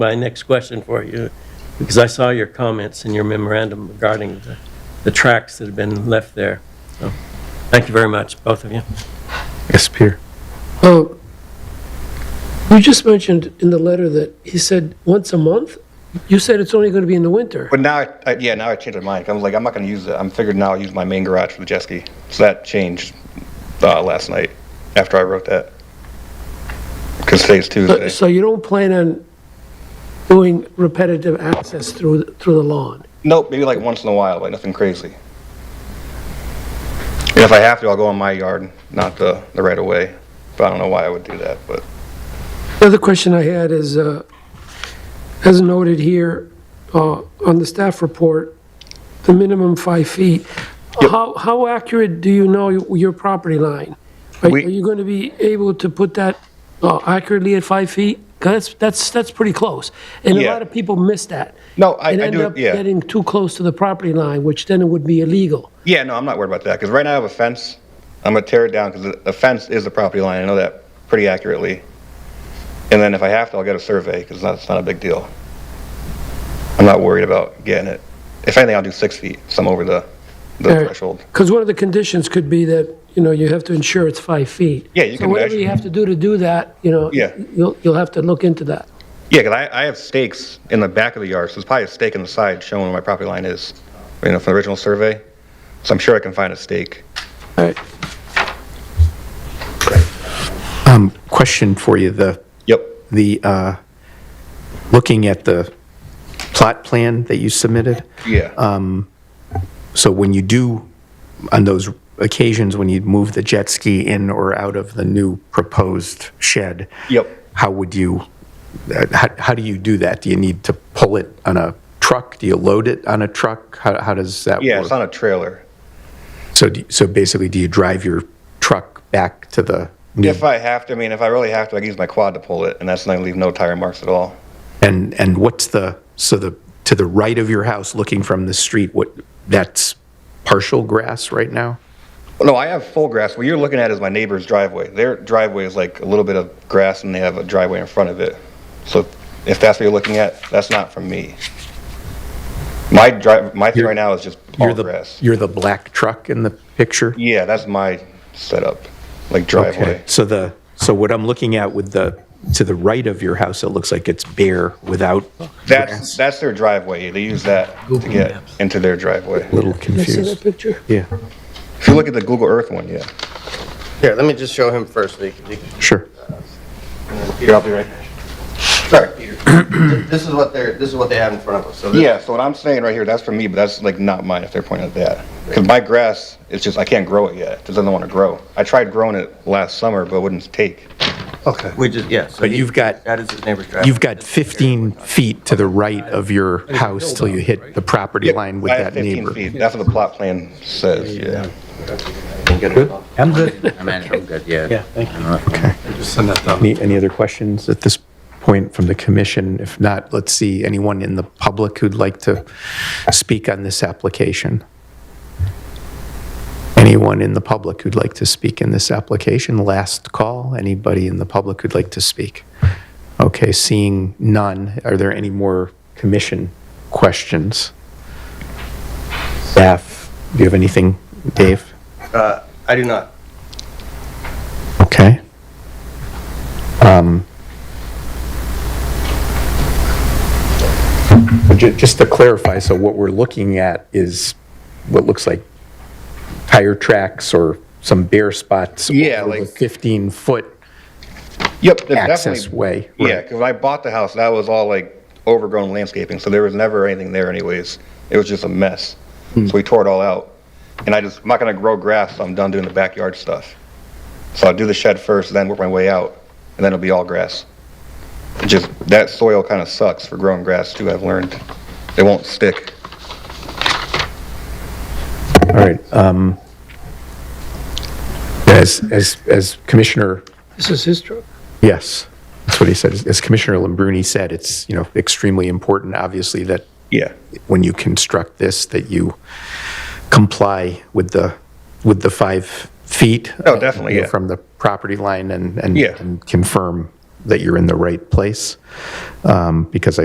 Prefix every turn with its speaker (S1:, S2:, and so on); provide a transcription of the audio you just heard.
S1: my next question for you, because I saw your comments in your memorandum regarding the, the tracks that have been left there. So, thank you very much, both of you.
S2: Yes, Peter.
S3: Oh, you just mentioned in the letter that he said once a month? You said it's only going to be in the winter.
S4: But now, I, I, yeah, now I changed my mind. I'm like, I'm not going to use it. I'm figured now I'll use my main garage for the jet ski. So that changed uh, last night after I wrote that. Because today's
S3: So-
S4: Tuesday.
S3: So you don't plan on doing repetitive access through, through the lawn?
S4: Nope, maybe like once in a while, like nothing crazy. And if I have to, I'll go in my yard, not the, the right of way. But I don't know why I would do that. But
S3: The other question I had is, uh, as noted here uh, on the staff report, the minimum five feet. How how accurate do you know your property line? Are
S4: We-
S3: are you going to be able to put that uh, accurately at five feet? 'Cause that's, that's, that's pretty close. And a
S4: Yeah.
S3: lot of people miss that.
S4: No, I- I
S3: And
S4: do-
S3: end up
S4: yeah.
S3: getting too close to the property line, which then it would be illegal.
S4: yeah, no, I'm not worried about that. Because right now I have a fence. I'm going to tear it down because the, the fence is the property line. I know that pretty accurately. And then if I have to, I'll get a survey because that's not a big deal. I'm not worried about getting it. If anything, I'll do six feet, so I'm over the, the threshold.
S3: Because one of the conditions could be that, you know, you have to ensure it's five feet.
S4: Yeah, you
S3: So
S4: can
S3: whatever
S4: measure.
S3: you have to do to do that, you know,
S4: Yeah.
S3: you'll, you'll have to look into that.
S4: Yeah, 'cause I, I have stakes in the back of the yard, so there's probably a stake in the side showing where my property line is, you know, from the original survey. So I'm sure I can find a stake.
S3: All right.
S2: Um, question for you, the,
S4: Yep.
S2: the, uh, looking at the plot plan that you submitted,
S4: Yeah.
S2: so when you do, on those occasions when you move the jet ski in or out of the new proposed shed?
S4: Yep.
S2: How would you, uh, how, how do you do that? Do you need to pull it on a truck? Do you load it on a truck? How, how does that work?
S4: yeah, it's on a trailer.
S2: So, do- so basically, do you drive your truck back to the new,
S4: If I have to, I mean, if I really have to, I can use my quad to pull it, and that's not gonna leave no tire marks at all.
S2: and, and what's the, so the, to the right of your house, looking from the street, what, that's partial grass right now?
S4: Well, no, I have full grass. What you're looking at is my neighbor's driveway. Their driveway is like a little bit of grass, and they have a driveway in front of it. So if that's what you're looking at, that's not from me. My drive, my thing
S2: You're-
S4: right now is just all
S2: You're the-
S4: grass.
S2: You're the black truck in the picture?
S4: Yeah, that's my setup, like
S2: Okay,
S4: driveway.
S2: so the, so what I'm looking at with the, to the right of your house, it looks like it's bare without
S4: That's,
S2: grass.
S4: that's their driveway. They use that to get into their driveway.
S2: A Little
S3: Can I see
S2: confused,
S3: that picture?
S2: yeah,
S4: If you look at the Google Earth one, yeah.
S5: Here, let me just show him first. so he can- he can-
S2: sure.
S4: Here, I'll be right back. Sorry.
S5: This is what they're, this is what they have in front of us. So this-
S4: Yeah, so what I'm saying right here, that's for me, but that's like not mine if they're pointing at that. Because my grass, it's just, I can't grow it yet. It just doesn't want to grow. I tried growing it last summer, but it wouldn't take.
S5: Okay. We just, yeah.
S2: But you've got-
S5: That is his neighbor's driveway.
S2: You've got 15 feet to the right of your house till you hit the property line with
S4: I have
S2: that
S4: 15
S2: neighbor.
S4: feet. That's what the plot plan says, yeah.
S6: I'm good.
S5: I mean, I'm good, yeah.
S6: Yeah, thank you. Just send that down.
S2: Any, any other questions at this point from the commission? If not, let's see, anyone in the public who'd like to speak on this application? Anyone in the public who'd like to speak in this application? Last call, anybody in the public who'd like to speak? Okay, seeing none, are there any more commission questions? Staff, do you have anything, Dave?
S5: Uh, I do not.
S2: Okay. Um, ju- Just to clarify, so what we're looking at is what looks like tire tracks or some bare spots.
S4: Yeah,
S2: over the
S4: like-
S2: 15-foot
S4: Yep, there's
S2: access
S4: definitely.
S2: way.
S4: Yeah, because when I bought the house, that was all like overgrown landscaping, so there was never anything there anyways. It was just a mess. So we tore it all out. And I just, I'm not going to grow grass, so I'm done doing the backyard stuff. So I'll do the shed first, then work my way out, and then it'll be all grass. It Just, that soil kind of sucks for growing grass too, I've learned. It won't stick.
S2: All right. um, As, as, as Commissioner
S3: This is his truck.
S2: Yes, that's what he said. As Commissioner Lambruni said, it's, you know, extremely important, obviously, that
S4: Yeah.
S2: when you construct this, that you comply with the, with the five feet. uh,
S4: Oh, definitely,
S2: you know,
S4: yeah.
S2: From the property line and, and
S4: Yeah.
S2: and confirm that you're in the right place, um, because I.